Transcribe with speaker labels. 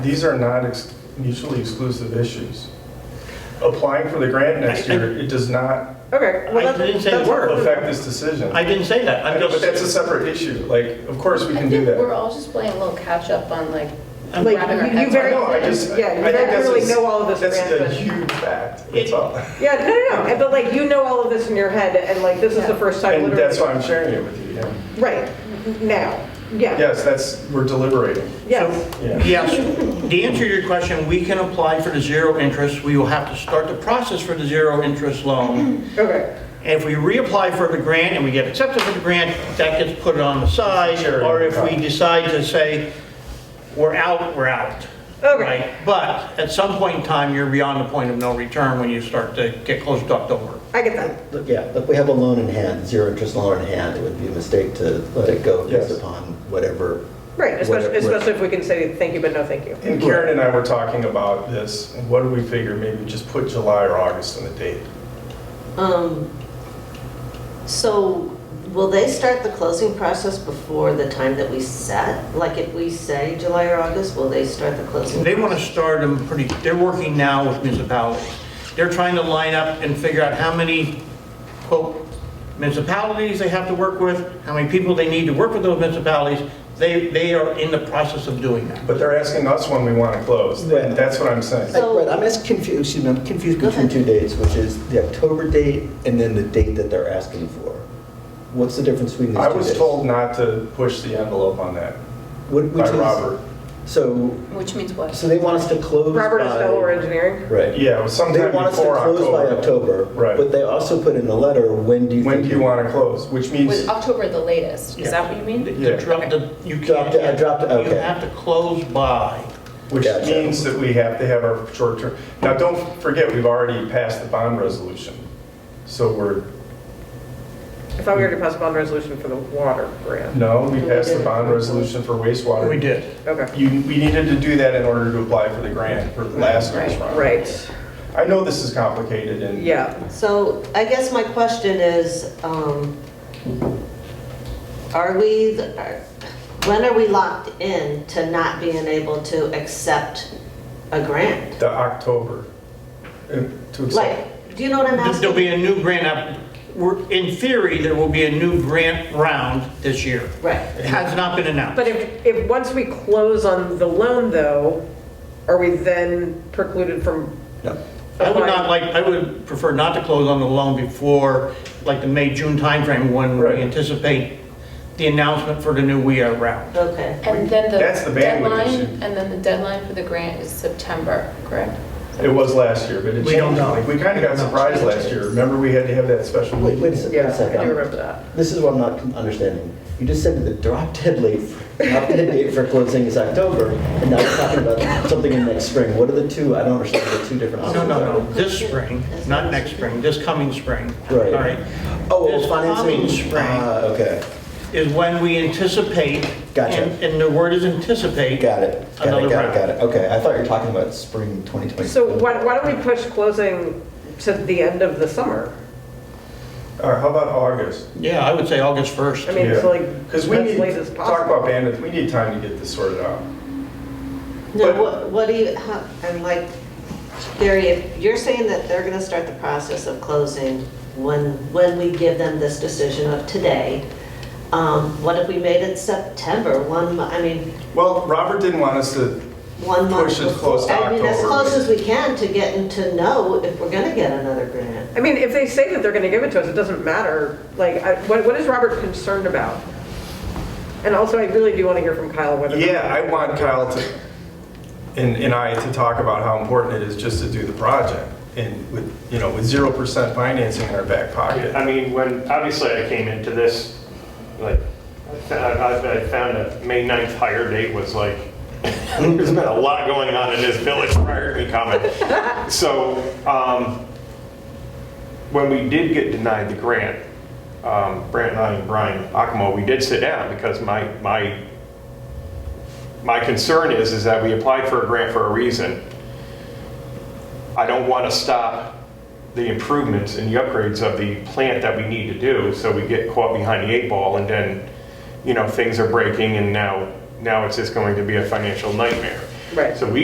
Speaker 1: These are not ex- mutually exclusive issues. Applying for the grant next
Speaker 2: I- I-
Speaker 1: year, it does not
Speaker 3: Okay. well,
Speaker 2: I
Speaker 3: that's-
Speaker 2: didn't say
Speaker 3: that's-
Speaker 2: word.
Speaker 1: affect this decision.
Speaker 2: I didn't say that.
Speaker 1: I
Speaker 2: I'm
Speaker 1: know, but
Speaker 2: just,
Speaker 1: that's a separate issue. Like, of course, we
Speaker 4: I
Speaker 1: can do
Speaker 4: think we're
Speaker 1: that.
Speaker 4: all just playing a little catch-up on like
Speaker 2: I'm-
Speaker 3: Like,
Speaker 4: wrapping our
Speaker 3: you- you
Speaker 4: heads
Speaker 3: very-
Speaker 4: around.
Speaker 1: No, I just, I
Speaker 3: Yeah, you
Speaker 1: I think that's
Speaker 3: really
Speaker 1: a-
Speaker 3: know all of this,
Speaker 1: That's
Speaker 3: Fran,
Speaker 1: a
Speaker 3: but-
Speaker 1: huge fact, that's all.
Speaker 3: Yeah, no, no, no, and- but like, you know all of this in your head, and like, this is the
Speaker 4: Yeah.
Speaker 3: first time
Speaker 1: And
Speaker 3: literally.
Speaker 1: that's why I'm sharing it with you, yeah.
Speaker 3: Right, now, yeah,
Speaker 1: Yes, that's, we're deliberating.
Speaker 3: yes,
Speaker 1: Yeah.
Speaker 2: yes, the answer to your question, we can apply for the zero interest. We will have to start the process for the zero interest loan.
Speaker 3: okay,
Speaker 2: And If we reapply for the grant and we get accepted for the grant, that gets put on the side.
Speaker 1: Sure.
Speaker 2: Or if we decide to say, we're out, we're out.
Speaker 3: Okay.
Speaker 2: right? But at some point in time, you're beyond the point of no return when you start to get close to October.
Speaker 3: I get that.
Speaker 5: Look, Yeah, look, we have a loan in hand, zero interest loan in hand. It would be a mistake to let it go
Speaker 1: Yes.
Speaker 5: based upon whatever.
Speaker 3: Right, especially,
Speaker 5: whatever-
Speaker 3: especially if we can say thank you, but no thank you.
Speaker 1: And Karen and I were talking about this, and what do we figure, maybe just put July or August on the date?
Speaker 6: Um, So will they start the closing process before the time that we set? Like if we say July or August, will they start the closing?
Speaker 2: They want to start them pretty, they're working now with municipalities. They're trying to line up and figure out how many, quote, municipalities they have to work with, how many people they need to work with those municipalities. They, they are in the process of doing that.
Speaker 1: But they're asking us when we want to close,
Speaker 5: Right.
Speaker 1: that's what I'm saying.
Speaker 6: So-
Speaker 5: Right, I'm just confused, excuse me, I'm confused
Speaker 6: Go
Speaker 5: between
Speaker 6: ahead.
Speaker 5: two dates, which is the October date and then the date that they're asking for. What's the difference between these two
Speaker 1: I
Speaker 5: dates?
Speaker 1: was told not to push the envelope on that
Speaker 5: What- which
Speaker 1: by
Speaker 5: is-
Speaker 1: Robert.
Speaker 5: So,
Speaker 4: Which means
Speaker 5: so
Speaker 4: what?
Speaker 5: they want us to close by.
Speaker 3: Robert is Delaware Engineering,
Speaker 5: Right.
Speaker 1: Yeah, it was
Speaker 5: They
Speaker 1: sometime
Speaker 5: want us to
Speaker 1: before
Speaker 5: close by October.
Speaker 1: Right.
Speaker 5: But they also put in the letter, when do you think?
Speaker 1: When do you want to close? Which means,
Speaker 4: With October the latest, is that what you mean?
Speaker 2: The drop, the, you can't.
Speaker 5: Dropped it, I dropped it,
Speaker 2: You
Speaker 5: okay.
Speaker 2: have to close by.
Speaker 1: which
Speaker 5: Gotcha.
Speaker 1: means that we have to have our short term. Now, don't forget, we've already passed the bond resolution. So we're,
Speaker 3: I thought we already passed a bond resolution for the water grant,
Speaker 1: no, we passed the bond resolution for wastewater.
Speaker 2: We did.
Speaker 3: okay,
Speaker 1: You, we needed to do that in order to apply for the grant for the last year's round.
Speaker 3: right,
Speaker 1: I know this is complicated and.
Speaker 3: yeah.
Speaker 6: So I guess my question is, um, are we, are- when are we locked in to not being able to accept a grant?
Speaker 1: The October, uh, to
Speaker 6: Like,
Speaker 1: accept.
Speaker 6: do you know what I'm asking?
Speaker 2: There'll be a new grant up, we're, in theory, there will be a new grant round this year.
Speaker 6: Right.
Speaker 2: It has not been announced.
Speaker 3: But if, if, once we close on the loan, though, are we then precluded from?
Speaker 5: No.
Speaker 2: I would not like, I would prefer not to close on the loan before, like, the May, June timeframe, when we
Speaker 1: Right.
Speaker 2: anticipate the announcement for the new We Are round.
Speaker 6: Okay.
Speaker 4: And then the
Speaker 1: That's the bandwidth
Speaker 4: deadline,
Speaker 1: issue.
Speaker 4: and then the deadline for the grant is September, correct?
Speaker 1: It was last year, but it
Speaker 2: We don't
Speaker 1: changed.
Speaker 2: know.
Speaker 1: Like, We kind of got surprised last year. Remember, we had to have that special
Speaker 5: Wait,
Speaker 1: meeting?
Speaker 5: wait a se- wait
Speaker 3: Yeah,
Speaker 5: a second.
Speaker 3: I do remember that.
Speaker 5: This is what I'm not understanding. You just said that the drop dead late, drop dead date for closing is October, and now you're talking about something in next spring. What are the two? I don't understand the two different
Speaker 2: No,
Speaker 5: options.
Speaker 2: no, no, this spring, not next spring, this coming spring.
Speaker 5: Right.
Speaker 2: All right,
Speaker 5: Oh,
Speaker 2: This
Speaker 5: well, financing.
Speaker 2: coming spring.
Speaker 5: Ah, okay.
Speaker 2: Is when we anticipate.
Speaker 5: Gotcha.
Speaker 2: and- And the word is anticipate.
Speaker 5: Got it. Got
Speaker 2: Another
Speaker 5: it. Got it.
Speaker 2: round.
Speaker 5: Got it. Okay. I thought you were talking about spring 2020.
Speaker 3: So why, why don't we push closing to the end of the summer?
Speaker 1: Or how about August?
Speaker 2: Yeah, I would say August 1st.
Speaker 3: I mean, it's like,
Speaker 1: Because
Speaker 3: as
Speaker 1: we need,
Speaker 3: late as
Speaker 1: talk
Speaker 3: possible.
Speaker 1: about bandwidth, we need time to get this sorted out.
Speaker 6: No,
Speaker 1: But-
Speaker 6: what, what do you, how- I'm like, Gary, if you're saying that they're gonna start the process of closing when, when we give them this decision of today, um, what if we made it September, one, mo- I mean,
Speaker 1: Well, Robert didn't want us to,
Speaker 6: one month?
Speaker 1: Push it close to
Speaker 6: before. I mean, as
Speaker 1: October.
Speaker 6: close as we can to getting to know if we're gonna get another grant.
Speaker 3: I mean, if they say that they're gonna give it to us, it doesn't matter, like, I- what, what is Robert concerned about? And also, I really do wanna hear from Kyle whether.
Speaker 1: yeah, I want Kyle to, and, and I to talk about how important it is just to do the project. And with, you know, with 0% financing in our back pocket.
Speaker 7: I mean, when, obviously I came into this, like, I, I I found a May 9th hire date was like, there's been a lot going on in this village prior to me coming. So, um, when we did get denied the grant, um, Brant and I and Brian Akamo, we did sit down because my, my, my concern is, is that we applied for a grant for a reason. I don't want to stop the improvements and the upgrades of the plant that we need to do, so we get caught behind the eight ball, and then, you know, things are breaking, and now, now it's just going to be a financial nightmare.
Speaker 3: Right.
Speaker 7: So we